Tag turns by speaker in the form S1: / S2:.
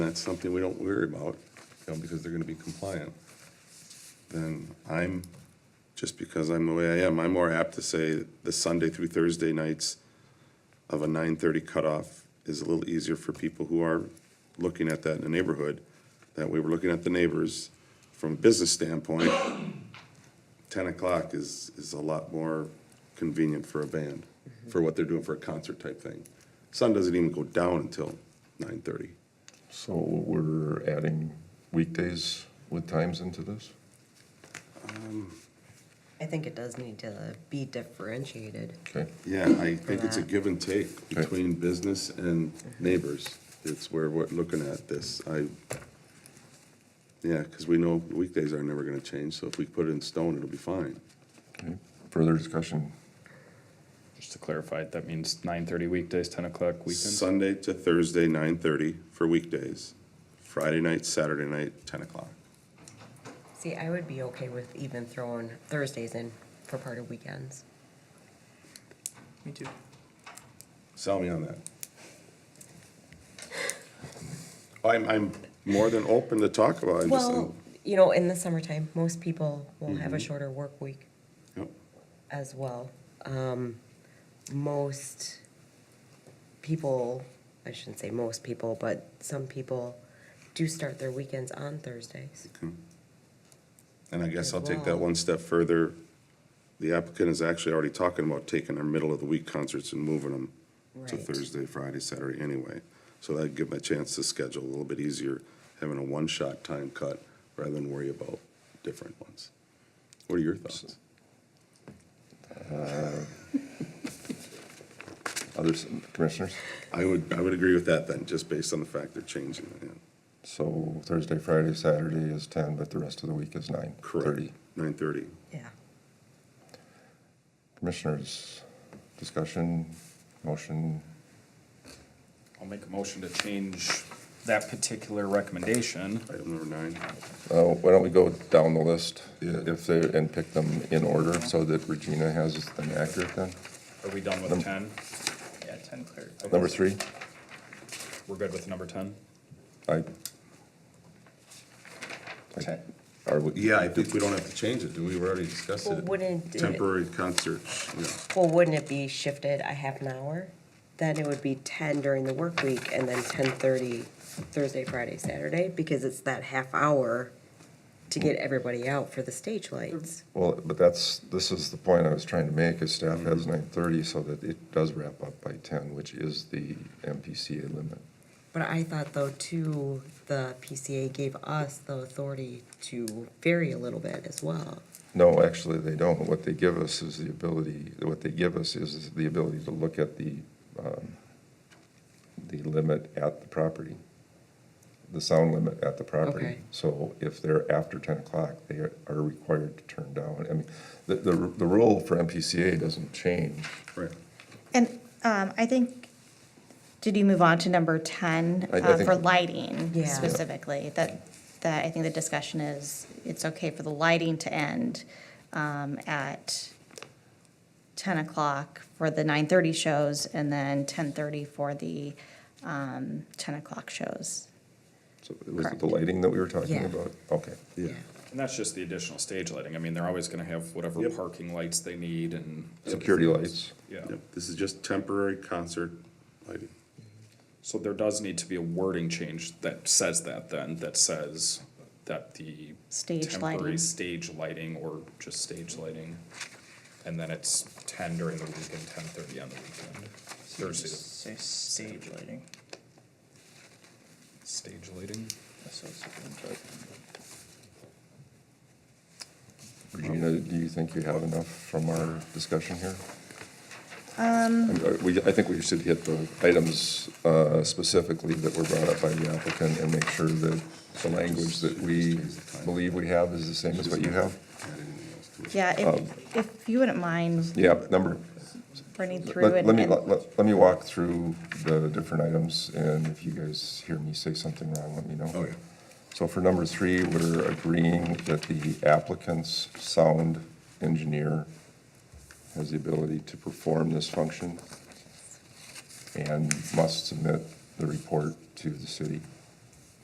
S1: that's something we don't worry about, you know, because they're gonna be compliant, then I'm, just because I'm the way I am, I'm more apt to say the Sunday through Thursday nights of a nine-thirty cutoff is a little easier for people who are looking at that in the neighborhood. That way, we're looking at the neighbors from a business standpoint. Ten o'clock is, is a lot more convenient for a band, for what they're doing for a concert type thing. Sun doesn't even go down until nine-thirty.
S2: So we're adding weekdays with times into this?
S3: I think it does need to be differentiated.
S2: Okay,
S1: Yeah, I think it's a give and take between business and neighbors. It's where we're looking at this. I, yeah, because we know weekdays are never gonna change, so if we put it in stone, it'll be fine.
S2: okay. Further discussion?
S4: Just to clarify, that means nine thirty weekdays, ten o'clock weekends?
S1: Sunday to Thursday, nine thirty for weekdays. Friday night, Saturday night, ten o'clock.
S3: See, I would be okay with even throwing Thursdays in for part of weekends.
S4: Me too.
S1: Sell me on that. I'm, I'm more than open to talk about it. I just-
S3: Well, you know, in the summertime, most people will have a shorter work week
S1: Yep.
S3: as well. Um, most people, I shouldn't say most people, but some people do start their weekends on Thursdays.
S1: And I guess I'll take that one step further. The applicant is actually already talking about taking their middle of the week concerts and moving them to
S3: Right.
S1: Thursday, Friday, Saturday anyway. So that'd give them a chance to schedule a little bit easier, having a one-shot time cut rather than worry about different ones. What are your thoughts?
S2: Others, commissioners?
S1: I would, I would agree with that then, just based on the fact they're changing it. yeah.
S2: So Thursday, Friday, Saturday is ten, but the rest of the week is nine.
S1: Correct.
S2: 30.
S1: Nine thirty.
S3: Yeah.
S2: Commissioners, discussion, motion,
S4: I'll make a motion to change that particular recommendation.
S1: Item number nine.
S2: Uh, Why don't we go down the list if they, and pick them in order so that Regina has them accurate then?
S4: Are we done with
S2: Num-
S4: ten? Yeah, ten clear.
S2: Number three,
S4: We're good with number ten?
S2: I. I-
S4: Okay.
S2: Are we?
S1: Yeah, I think we don't have to change it, do we? We already discussed
S3: Well,
S1: it.
S3: wouldn't it-
S1: Temporary concerts, yeah.
S3: Well, wouldn't it be shifted a half an hour? Then it would be ten during the work week and then ten thirty Thursday, Friday, Saturday, because it's that half hour to get everybody out for the stage lights.
S2: Well, but that's, this is the point I was trying to make, is staff has
S3: Mm-hmm.
S2: nine thirty so that it does wrap up by ten, which is the MPCA limit.
S3: But I thought though too, the PCA gave us the authority to vary a little bit as well.
S2: No, actually, they don't. What they give us is the ability, what they give us is the ability to look at the, um, the limit at the property, the sound limit at the property.
S3: Okay.
S2: So if they're after ten o'clock, they are are required to turn down. I mean, the, the, the rule for MPCA doesn't change.
S1: Right.
S5: And um, I think, did you move on to number 10
S2: I- I
S5: uh,
S2: think-
S5: for lighting
S3: Yeah.
S5: specifically? That, that, I think the discussion is, it's okay for the lighting to end um, at 10 o'clock for the 9:30 shows and then 10:30 for the um, 10 o'clock shows.
S2: So was it
S5: Correct.
S2: the lighting that we were talking
S3: Yeah.
S2: about? Okay.
S1: Yeah.
S4: And that's just the additional stage lighting. I mean, they're always gonna have whatever
S1: Yep.
S4: parking lights they need and.
S2: Security lights.
S4: Yeah.
S1: Yep, This is just temporary concert lighting.
S4: So there does need to be a wording change that says that then, that says that the.
S5: Stage
S4: Temporary
S5: lighting.
S4: stage lighting or just stage lighting. And then it's ten during the week and ten thirty on the weekend. Thursday, to-
S6: Say stage lighting.
S4: stage lighting.
S6: That's what I was looking for.
S2: Regina, do you think you have enough from our discussion here? Um. We, I think we should hit the items uh, specifically that were brought up by the applicant and make sure that the language that we believe we have is the same as what you have.
S1: Add anything else to it.
S5: Yeah, if, if you wouldn't mind
S2: Um, Yeah, number,
S5: running through
S2: let
S5: it.
S2: let me,
S5: and-
S2: let let- let me walk through the different items, and if you guys hear me say something wrong, let me know.
S1: Oh, yeah.
S2: So for number three, we're agreeing that the applicant's sound engineer has the ability to perform this function and must submit the report to the city.